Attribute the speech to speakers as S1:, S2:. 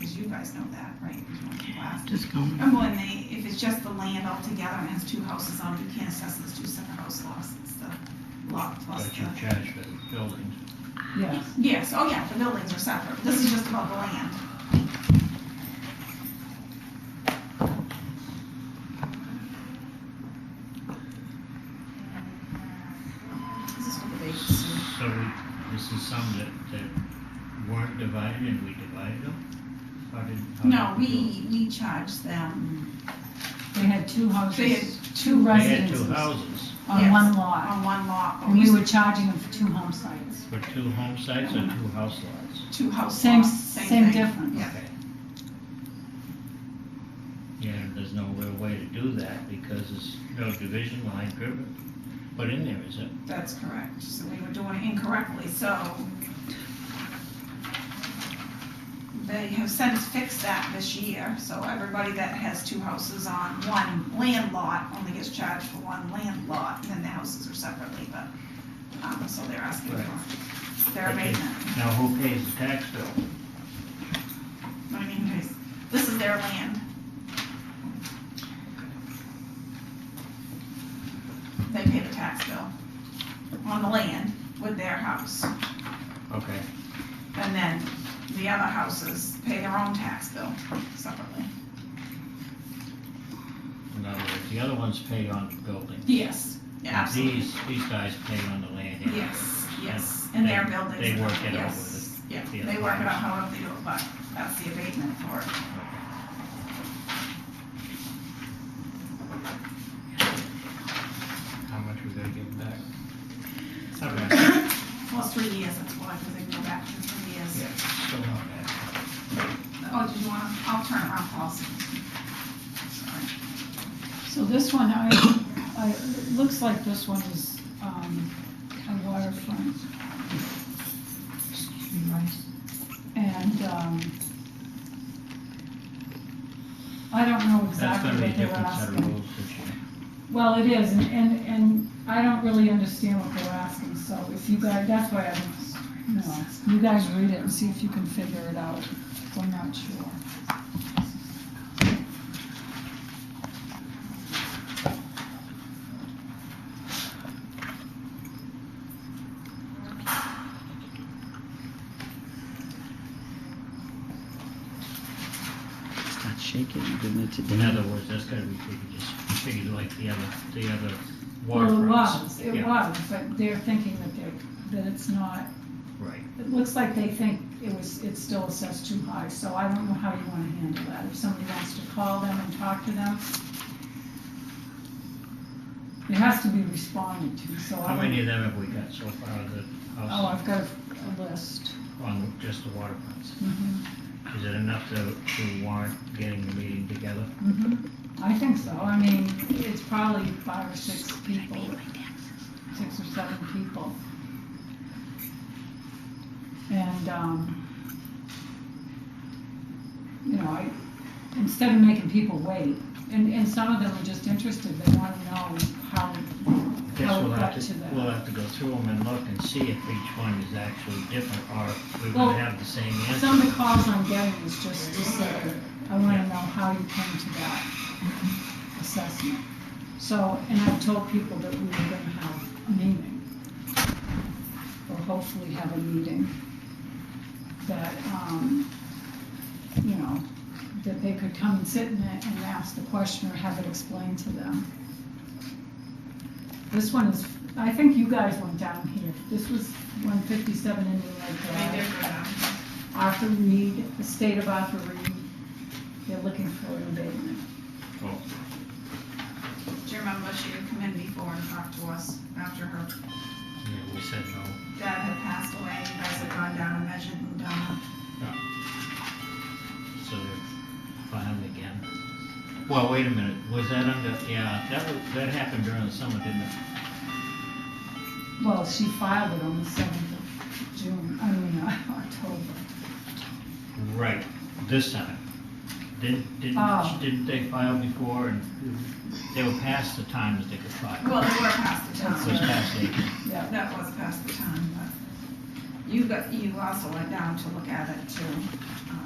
S1: you guys know that, right? Wow.
S2: Just going.
S1: And when they, if it's just the land altogether and has two houses on it, you can't assess those two separate house lots, it's the lot plus
S3: But
S1: the.
S3: you charge for the buildings.
S2: Yes.
S1: Yes, oh yeah, the buildings are separate, this is just about the land. This is what the dates are.
S3: So we- this is some that, that weren't divided and we divided them? How did- how did
S1: No,
S3: do it?
S1: we, we charge them
S4: They had two
S1: They had
S4: houses,
S1: two-
S4: two
S3: They had two
S4: residences
S3: houses,
S4: on
S1: Yes.
S4: one lot.
S1: on one lot, but
S4: And we
S1: we,
S4: were charging them for two home sites.
S3: but two home sites or two house lots?
S1: two house
S4: Same,
S1: lots,
S4: same
S1: same thing.
S4: difference.
S1: Yeah.
S3: Okay. Yeah, and there's no real way to do that because there's no division line driven put in there, is it?
S1: That's correct, so we were doing it incorrectly, so. They have since fixed that this year, so everybody that has two houses on one land lot only gets charged for one land lot, and then the houses are separately, but, um, so they're asking for their
S3: Okay.
S1: abatement.
S3: Now, who pays the tax bill?
S1: What I mean is, this is their land. They pay the tax bill on the land with their house,
S3: Okay,
S1: and then the other houses pay their own tax bill separately.
S3: in other words, the other ones pay on the building.
S1: Yes. Absolutely.
S3: These, these guys pay on the land. anyway.
S1: Yes, yes, and their
S3: They-
S1: buildings.
S3: they work it out
S1: yes,
S3: with
S1: Yeah,
S3: the
S1: they work it
S3: apartments.
S1: out however they do it, but that's the abatement for it.
S3: How much would they give back?
S1: Well, it's three years, that's why, because they can go back to three years.
S3: Still not bad.
S1: Oh, did you want, to? I'll turn around, Paul's. Sorry.
S4: So this one, I, I, it looks like this one is, um, a waterfront. And, um, I don't know
S3: That's gonna
S4: exactly
S3: be a
S4: what they were
S3: different set of
S4: asking.
S3: rules this year.
S4: Well, it is, and, and, and I don't really understand what they're asking, so if you guys, that's why I'm, no, you guys read it and see if you can figure it out, we're not sure.
S2: Start shaking, giving it to
S3: In
S2: Dana.
S3: other words, that's gotta be figured, just figured like the other, the other
S4: Well, it
S3: waterfronts.
S4: was, it
S3: Yeah,
S4: was, but they're thinking that they're, that it's not,
S3: Right,
S4: it looks like they think it was, it's still assessed too high, so I don't know how you wanna handle that, if somebody wants to call them and talk to them. It has to be responded to, so I
S3: how
S4: don't.
S3: many of them have we got so far, the
S4: Oh,
S3: house
S4: I've got a- a list. Mm-hmm.
S3: on just the waterfronts? Is it enough to, to warrant getting the meeting together?
S4: Mm-hmm. I think so, I mean, it's probably five or six people, six or seven people. And, um, you know, I, instead of making people wait, and, and some of them are just interested, they wanna know how,
S3: Guess
S4: how
S3: we'll
S4: it
S3: have
S4: got
S3: to,
S4: to
S3: we'll
S4: them.
S3: have to go through them and look and see if each one is actually different, or if we're
S4: Well,
S3: gonna have the same answer.
S4: Some of the calls I'm getting is just to say, I wanna know how you came to that assessment. So, and I've told people that we were gonna have a meeting, or hopefully have a meeting, that, um, you know, that they could come and sit in it and ask the question or have it explained to them. This one is, I think you guys went down here, this was one fifty-seven Indian Lake Drive.
S1: They did go down.
S4: Arthur Reed, the state of Arthur Reed, they're looking for an abatement.
S3: Oh,
S1: Do you remember she had come in before and talked to us after her
S3: Yeah, we said no.
S1: dad had passed away? You guys had gone down and measured and done.
S3: So filed again. Well, wait a minute, was that under, yeah, that was, that happened during the summer, didn't it?
S4: Well, she filed it on the seventh of June, I mean, uh, October.
S3: Right, this time. Didn't,
S4: Oh.
S3: didn't, didn't they file before and they were past the time that they could file?
S1: Well, they were past the
S3: It was
S1: time.
S3: past April.
S4: Yeah,
S1: That was past the time, but you got, you also went down to look at it too. um,